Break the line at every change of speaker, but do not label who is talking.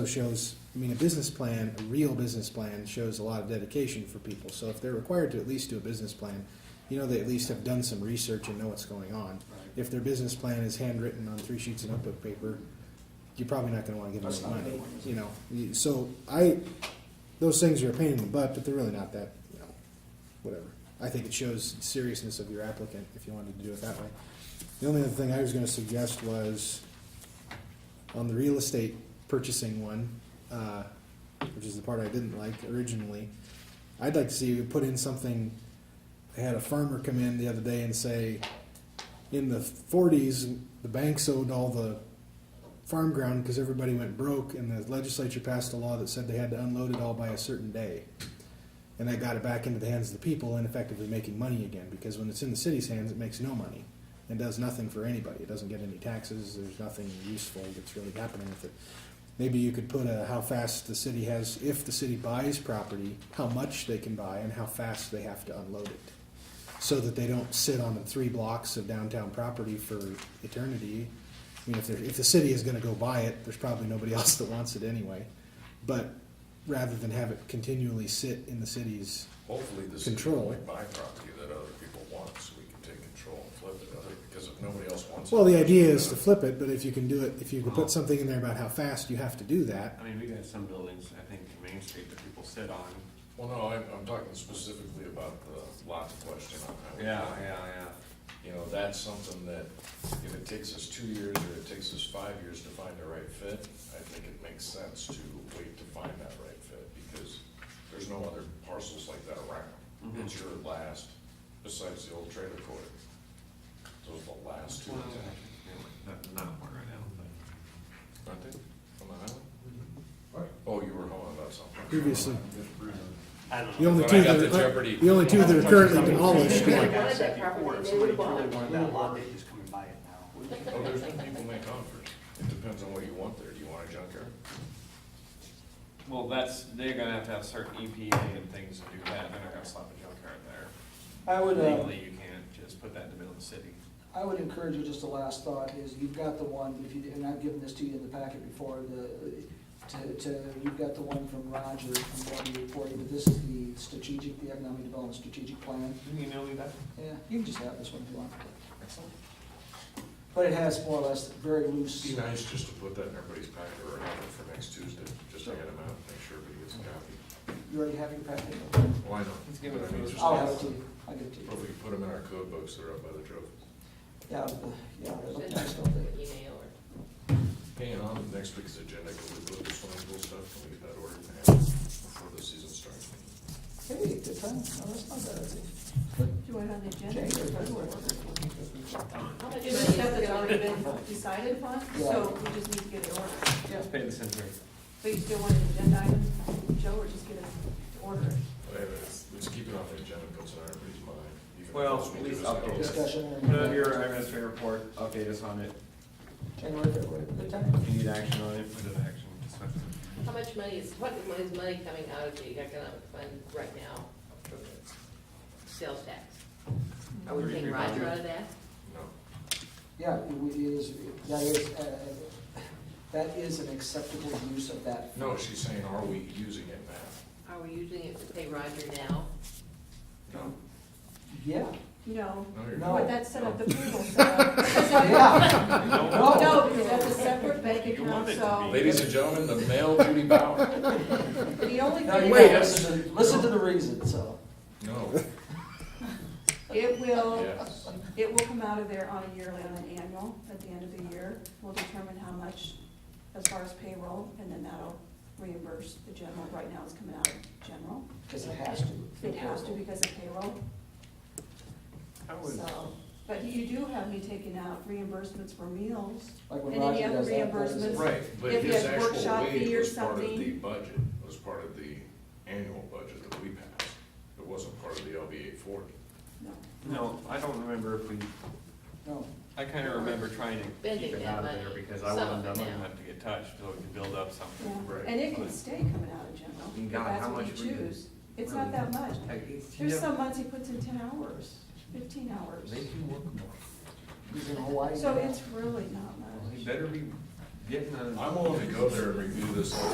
shows, I mean, a business plan, a real business plan, shows a lot of dedication for people. So if they're required to at least do a business plan, you know they at least have done some research and know what's going on. If their business plan is handwritten on three sheets of notebook paper, you're probably not gonna wanna give them
That's
any
not
money,
good ones.
you know? You- So I, those things are a pain in the butt, but they're really not that, you know, whatever. I think it shows seriousness of your applicant if you wanted to do it that way. The only other thing I was gonna suggest was on the real estate purchasing one, uh, which is the part I didn't like originally. I'd like to see you put in something, I had a farmer come in the other day and say, in the forties, the banks owed all the farm ground because everybody went broke and the legislature passed a law that said they had to unload it all by a certain day. And that got it back into the hands of the people and effectively making money again because when it's in the city's hands, it makes no money and does nothing for anybody. It doesn't get any taxes. There's nothing useful that's really happening with it. Maybe you could put a, how fast the city has, if the city buys property, how much they can buy and how fast they have to unload it so that they don't sit on the three blocks of downtown property for eternity. I mean, if, they're- if the city is gonna go buy it, there's probably nobody else that wants it anyway. But rather than have it continually sit in the city's,
Hopefully this is
Control.
like my property that other people want, so we can take control and flip it, other- because if nobody else wants it.
well, the idea is to flip it, but if you can do it, if you can put something in there about how fast you have to do that,
I mean, we got some buildings, I think, in Main Street that people sit on.
Well, no, I'm, I'm talking specifically about the lot question on highway.
Yeah,
nine.
yeah, yeah.
You know, that's something that, if it takes us two years or it takes us five years to find the right fit, I think it makes sense to wait to find that right fit, because there's no other parcels like that around.
Mhm.
It's your last, besides the old trailer court. Those are the last two in
Well,
town,
yeah, Not, not important right now, but.
aren't they, on the highway? Oh, you were home about something.
previously.
I don't
The only
When
two
I got
that
the
are,
Jeopardy-
the only two that are currently demolished,
Yeah.
Like I said before, if somebody really wanted that lot, they'd just come and buy it now.
Oh, there's been people make offers. It depends on what you want there. Do you want a junkyard?
Well, that's, they're gonna have to have certain EPA and things to do that, they're not gonna slap a junkyard there.
I would, uh,
Legally, you can't just put that in the middle of the city.
I would encourage you, just a last thought, is you've got the one, if you, and I've given this to you in the packet before, the, to, to, you've got the one from Roger, from what he reported, but this is the strategic, the economic development strategic plan.
Didn't you know me that?
Yeah, you can just have this one if you want. But it has more or less very loose.
It'd be nice just to put that in everybody's packet or have it for next Tuesday, just to get them out, make sure everybody gets a copy.
You already have your packet?
Well, I know.
Let's give it
But I mean,
to us.
just-
I'll have it to you, I'll give it to
But
you.
we can put them in our code books that are up by the trophy.
Yeah, the- yeah, they look nice, don't they?
Email or.
Hey, and on next week's agenda, can we put the swimming pool stuff? Can we get that ordered and have it before the season starts?
Hey, good time, no, that's not bad, I think.
Do it on the agenda.
January, February.
Is it stuff that's already been decided upon, so
Yeah.
we just need to get it ordered.
Yeah.
Pay the center.
But you still want an agenda item, Joe, or just get it to order?
But anyway, Let's keep it off the agenda, puts it in everybody's mind. even if
Well,
it's
at
me
least
to us.
update us.
Discussion.
Put it on your administrative report, update us on it,
January, February, good time.
if you need action on it, put it in action. discuss it.
How much money is, what is money coming out of the economic fund right now from the sales tax? Are we paying Roger out of that?
No.
Yeah, it would- it is, that is, uh, that is an acceptable use of that.
No, she's saying, are we using it now?
Are we using it to pay Roger now?
No.
Yeah,
No,
No, you're
No.
but
not.
that's set up, the pool set up.
yeah,
No, because that's a separate bank
You want
account,
it to
so
Ladies and gentlemen, the male Judy Bauer.
the only
no, you
thing
gotta
is,
listen to, listen to the reason, so.
No,
it will,
yes.
it will come out of there on a yearly, on an annual, at the end of the year. We'll determine how much as far as payroll, and then that'll reimburse the general. Right now, it's coming out of general.
Because it has to.
It has to because of payroll.
How was,
So, but you do have me taking out reimbursements for meals.
Like when
And any
Roger
other
does that, that is-
reimbursements?
Right, but
If you
his
had
actual
workshop
wage
fee or
was part of the
something.
budget, was part of the annual budget that we passed. It wasn't part of the LB eight forty.
No.
no, I don't remember if we,
No,
I kinda remember trying to keep
Spending
it
that
out of there
money,
because I
some
wasn't
of it
dumb
now.
enough to get touched, so we could build up
Yeah,
something.
Right.
and it can stay coming out of general,
And
if
Oh God,
that's
how
what you
much we-
choose. It's not that much. There's some months he puts in ten hours, fifteen hours.
They do work more.
he's in Hawaii.
So
now.
it's really not much.
He better be getting a.
I'm willing to go there and review this whole